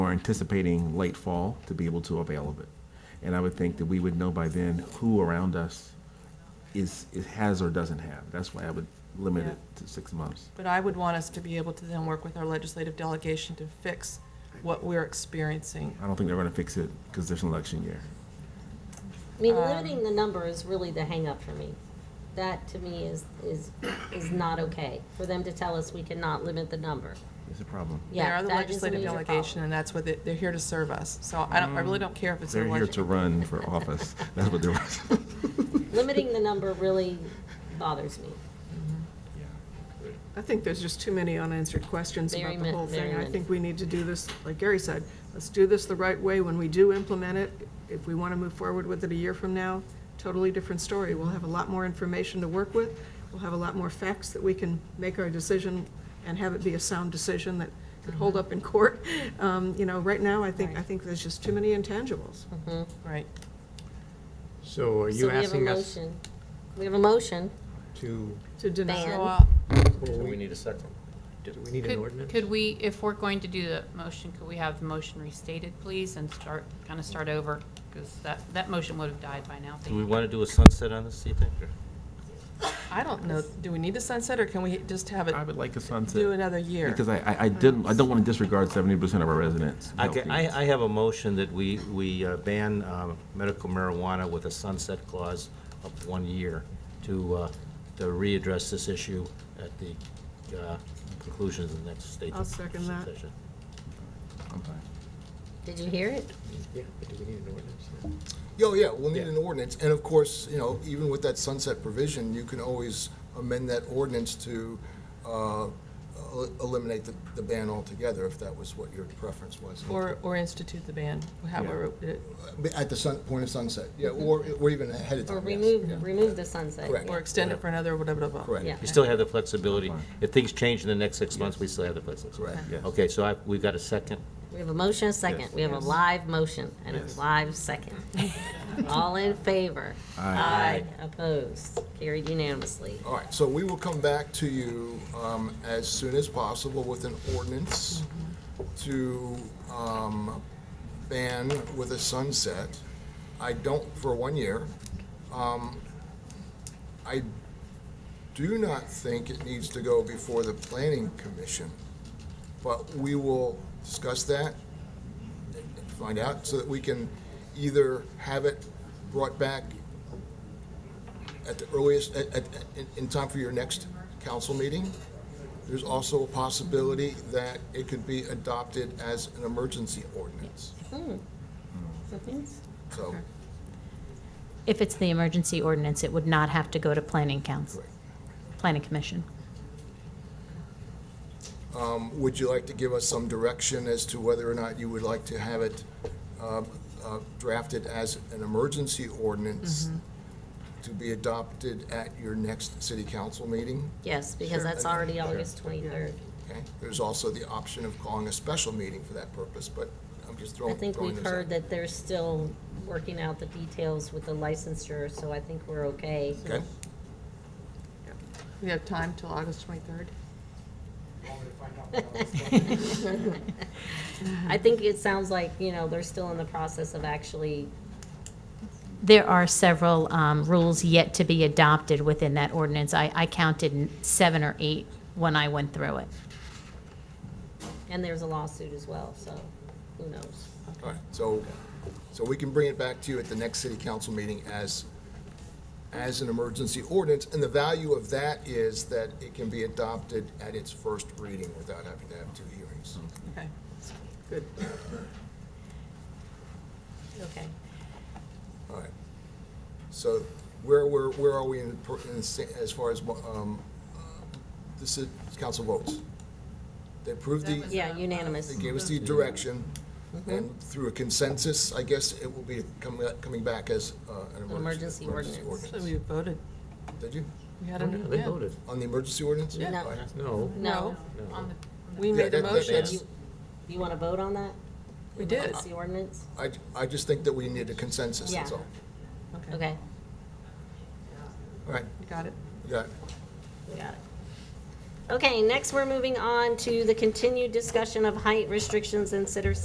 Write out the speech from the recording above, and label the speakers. Speaker 1: are anticipating late fall to be able to avail of it. And I would think that we would know by then who around us is, is has or doesn't have. That's why I would limit
Speaker 2: Yeah.
Speaker 1: it to six months.
Speaker 2: But I would want us to be able to then work with our legislative delegation to fix what we're experiencing.
Speaker 1: I don't think they're going to fix it because there's an election year.
Speaker 3: I
Speaker 2: Um,
Speaker 3: mean, limiting the number is really the hang up for me. That to me is, is, is not okay, for them to tell us we cannot limit the number.
Speaker 1: It's a problem.
Speaker 2: They are
Speaker 3: Yeah,
Speaker 2: the
Speaker 3: that is a
Speaker 2: legislative
Speaker 3: major
Speaker 2: delegation,
Speaker 3: problem.
Speaker 2: and that's what, they- they're here to serve us. So I don't, I really don't care if it's an
Speaker 1: Mm. They're here to
Speaker 2: election.
Speaker 1: run for office. That's what they're.
Speaker 3: Limiting the number really bothers me.
Speaker 4: I think there's just too many unanswered questions
Speaker 3: Very
Speaker 4: about the
Speaker 3: min-
Speaker 4: whole
Speaker 3: very
Speaker 4: thing. I
Speaker 3: many.
Speaker 4: think we need to do this, like Gary said, let's do this the right way when we do implement it. If we want to move forward with it a year from now, totally different story. We'll have a lot more information to work with. We'll have a lot more facts that we can make our decision and have it be a sound decision that could hold up in court. Um, You know, right now, I think, I think there's just too many intangibles.
Speaker 2: Right.
Speaker 5: So are
Speaker 3: So
Speaker 5: you
Speaker 3: we have a
Speaker 5: asking us
Speaker 3: motion. We have a motion.
Speaker 5: to,
Speaker 4: To deny,
Speaker 3: Ban.
Speaker 2: So, uh,
Speaker 5: well,
Speaker 6: Do we
Speaker 5: we-
Speaker 6: need a second?
Speaker 5: do we need an
Speaker 7: Could,
Speaker 5: ordinance?
Speaker 7: could we, if we're going to do the motion, could we have the motion restated, please, and start, kind of start over? Because that, that motion would have died by now.
Speaker 6: Do we want to do a sunset on this, do you think? or-
Speaker 2: I don't know, do we need to sunset, or can we just have it
Speaker 1: I would like a sunset.
Speaker 2: do another year?
Speaker 1: Because I, I, I didn't, I don't want to disregard seventy percent of our residents.
Speaker 6: Okay,
Speaker 1: healthy.
Speaker 6: I, I have a motion that we, we uh, ban uh, medical marijuana with a sunset clause of one year to, uh, to readdress this issue at the uh, conclusion of the next state.
Speaker 4: I'll second that.
Speaker 6: session.
Speaker 1: I'm fine.
Speaker 3: Did you hear it?
Speaker 5: Yeah, but do we need an ordinance?
Speaker 8: Oh, yeah, we'll need
Speaker 6: Yeah.
Speaker 8: an ordinance, and of course, you know, even with that sunset provision, you can always amend that ordinance to uh, el- eliminate the- the ban altogether, if that was what your preference was.
Speaker 2: Or, or institute the ban, however, it-
Speaker 8: At the sun, point of sunset, yeah, or, or even ahead of time,
Speaker 3: Mm-hmm. Or
Speaker 8: yes. Yeah.
Speaker 3: remove, remove the sunset.
Speaker 8: Correct.
Speaker 2: or extend it for another, whatever, whatever.
Speaker 8: Correct.
Speaker 3: Yeah.
Speaker 6: You still have the flexibility.
Speaker 1: Fine.
Speaker 6: If things change in the next six months, we still have the flexibility.
Speaker 8: Correct.
Speaker 1: Yes.
Speaker 6: Okay, so I, we've got a second.
Speaker 3: We have a motion, a second. We have a live motion and a
Speaker 1: Yes.
Speaker 3: live second. All in favor? Aye. Opposed? Carried unanimously.
Speaker 8: All right, so we will come back to you um, as soon as possible with an ordinance to um, ban with a sunset. I don't, for one year. Um, I do not think it needs to go before the planning commission, but we will discuss that, find out, so that we can either have it brought back at the earliest, at, at, in, in time for your next council meeting. There's also a possibility that it could be adopted as an emergency ordinance.
Speaker 3: Hmm.
Speaker 8: So,
Speaker 9: If it's the emergency ordinance, it would not have to go to planning council,
Speaker 8: correct.
Speaker 9: planning commission.
Speaker 8: Um, would you like to give us some direction as to whether or not you would like to have it, um, uh, drafted as an emergency ordinance
Speaker 3: Mm-hmm.
Speaker 8: to be adopted at your next city council meeting?
Speaker 3: Yes, because that's already August twenty-third.
Speaker 8: Okay, there's also the option of calling a special meeting for that purpose, but I'm just
Speaker 3: I
Speaker 8: throwing,
Speaker 3: think
Speaker 8: throwing
Speaker 3: we've
Speaker 8: this out.
Speaker 3: heard that they're still working out the details with the licensure, so I think we're okay.
Speaker 8: Okay?
Speaker 2: We have time till August 23rd?
Speaker 3: I think it sounds like, you know, they're still in the process of actually,
Speaker 9: There are several um, rules yet to be adopted within that ordinance. I, I counted seven or eight when I went through it.
Speaker 3: and there's a lawsuit as well, so who knows?
Speaker 8: All right, so, so we can bring it back to you at the next city council meeting as, as an emergency ordinance, and the value of that is that it can be adopted at its first reading without having to have two hearings.
Speaker 2: Okay.
Speaker 4: good.
Speaker 3: Okay.
Speaker 8: All right. So where, where, where are we in, per- in the sta- as far as, um, uh, the ci- council votes? They approved the.
Speaker 3: Yeah, unanimous.
Speaker 8: They gave us the direction, and through a consensus, I guess it will be coming, coming back as uh, an emergency.
Speaker 3: emergency ordinance.
Speaker 2: So we voted.
Speaker 8: Did you?
Speaker 2: We had
Speaker 5: Oh, yeah,
Speaker 2: a,
Speaker 5: They
Speaker 2: yeah.
Speaker 5: voted.
Speaker 8: On the emergency ordinance?
Speaker 2: Yeah.
Speaker 3: No.
Speaker 8: All right.
Speaker 5: No.
Speaker 3: No,
Speaker 2: No. We made
Speaker 8: Yeah,
Speaker 2: a
Speaker 8: that- that-
Speaker 2: motion.
Speaker 8: that's-
Speaker 3: you want to vote on that?
Speaker 2: We did.
Speaker 3: It's the ordinance?
Speaker 8: I, I just think that we need a consensus, that's
Speaker 3: Yeah.
Speaker 8: all.
Speaker 2: Okay,
Speaker 3: Okay,
Speaker 8: All right,
Speaker 2: you got it.
Speaker 8: you got it.
Speaker 3: we got it. Okay, next, we're moving on to the continued discussion of height restrictions in Center